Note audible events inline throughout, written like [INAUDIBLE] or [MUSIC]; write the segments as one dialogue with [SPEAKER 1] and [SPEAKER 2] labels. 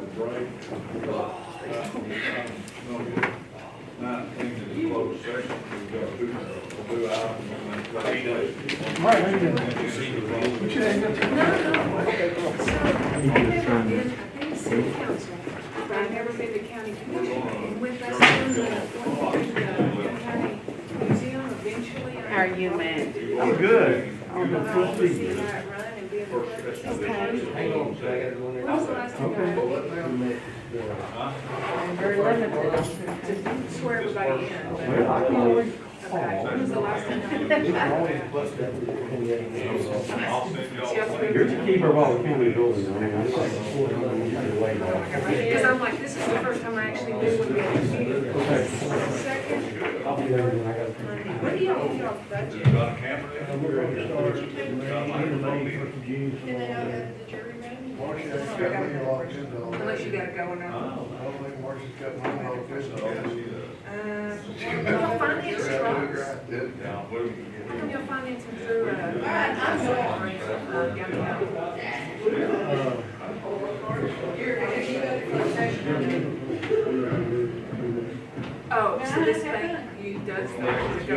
[SPEAKER 1] break. Uh, No, nineteen is closed session, we've got two, two items on that.
[SPEAKER 2] I've never been to county commission, and with us doing the, going through the uh, county museum eventually.
[SPEAKER 3] How are you, Matt?
[SPEAKER 1] I'm good.
[SPEAKER 2] I'm gonna see that run and be able to.
[SPEAKER 4] Hang on, so I gotta go in
[SPEAKER 2] When
[SPEAKER 4] there.
[SPEAKER 2] was the last time
[SPEAKER 3] I'm very limited.
[SPEAKER 2] I swear everybody in?
[SPEAKER 4] Well, I can always
[SPEAKER 2] Okay, when was the last time?
[SPEAKER 1] I'll send y'all.
[SPEAKER 2] Yes, we-
[SPEAKER 4] You're the keeper of all the county buildings, I mean, I'm not four hundred years away now.
[SPEAKER 2] [LAUGHS] Because I'm like, this is the first time I actually knew when we had a meeting. Second,
[SPEAKER 4] I'll be there when I gotta.
[SPEAKER 2] what do y'all, y'all budget?
[SPEAKER 1] Got a camera there? Got a microphone there?
[SPEAKER 2] Did they know that the jury room? Unless you gotta go and, uh,
[SPEAKER 1] So, she does.
[SPEAKER 2] well, finance trucks.
[SPEAKER 1] Now, what do we
[SPEAKER 2] How come your finance is through, uh, I'm sorry. Uh, yeah, yeah. Oh, so this bank, you does not to go.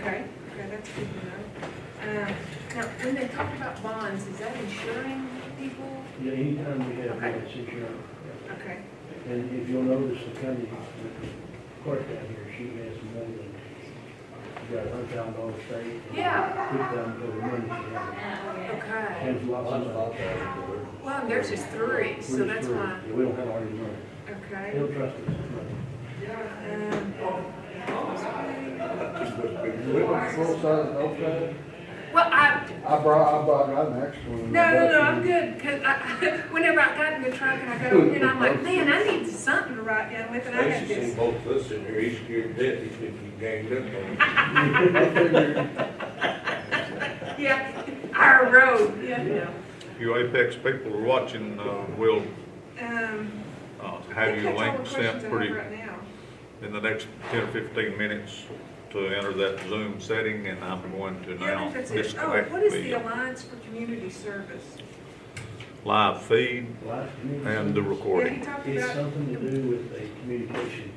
[SPEAKER 2] Okay, okay, that's good to know. Um, Now, when they talk about bonds, is that insuring people?
[SPEAKER 5] Yeah, anytime we have that situation,
[SPEAKER 2] Okay,
[SPEAKER 5] and if you'll notice, the county clerk down here, she has more than, she got a hundred thousand dollar stake.
[SPEAKER 2] yeah,
[SPEAKER 5] Fifty thousand dollar money she has,
[SPEAKER 2] okay.
[SPEAKER 5] has lots of money.
[SPEAKER 2] Well, and there's just three, so that's why,
[SPEAKER 5] We don't have our own money,
[SPEAKER 2] okay.
[SPEAKER 5] he'll trust us with money.
[SPEAKER 2] Um,
[SPEAKER 6] We went full size, okay.
[SPEAKER 2] Well, I,
[SPEAKER 6] I brought, I brought, I an extra one.
[SPEAKER 2] No, no, no, I'm good, cause I, [LAUGHS] whenever I got in the truck and I got over here, and I'm like, man, I need something to write down with, and I got
[SPEAKER 7] Basically,
[SPEAKER 2] this.
[SPEAKER 7] both of us in here, he's scared to death, he's been ganged up on.
[SPEAKER 2] Yeah, our road, yeah, yeah.
[SPEAKER 1] You Apex people are watching, uh, will,
[SPEAKER 2] Um.
[SPEAKER 1] uh,
[SPEAKER 2] I
[SPEAKER 1] have
[SPEAKER 2] think
[SPEAKER 1] your
[SPEAKER 2] that's all
[SPEAKER 1] link sent
[SPEAKER 2] the questions I have
[SPEAKER 1] pretty,
[SPEAKER 2] Right now.
[SPEAKER 1] in the next ten or fifteen minutes to enter that Zoom setting, and I'm going to
[SPEAKER 2] Yeah, I
[SPEAKER 1] now
[SPEAKER 2] think that's it. Oh,
[SPEAKER 1] disconnect
[SPEAKER 2] what is the
[SPEAKER 1] the
[SPEAKER 2] Alliance for Community Service?
[SPEAKER 1] live feed
[SPEAKER 5] Life community.
[SPEAKER 1] and the
[SPEAKER 2] Yeah,
[SPEAKER 1] recording.
[SPEAKER 2] he talked
[SPEAKER 5] It's
[SPEAKER 2] about,
[SPEAKER 5] something to do with a communication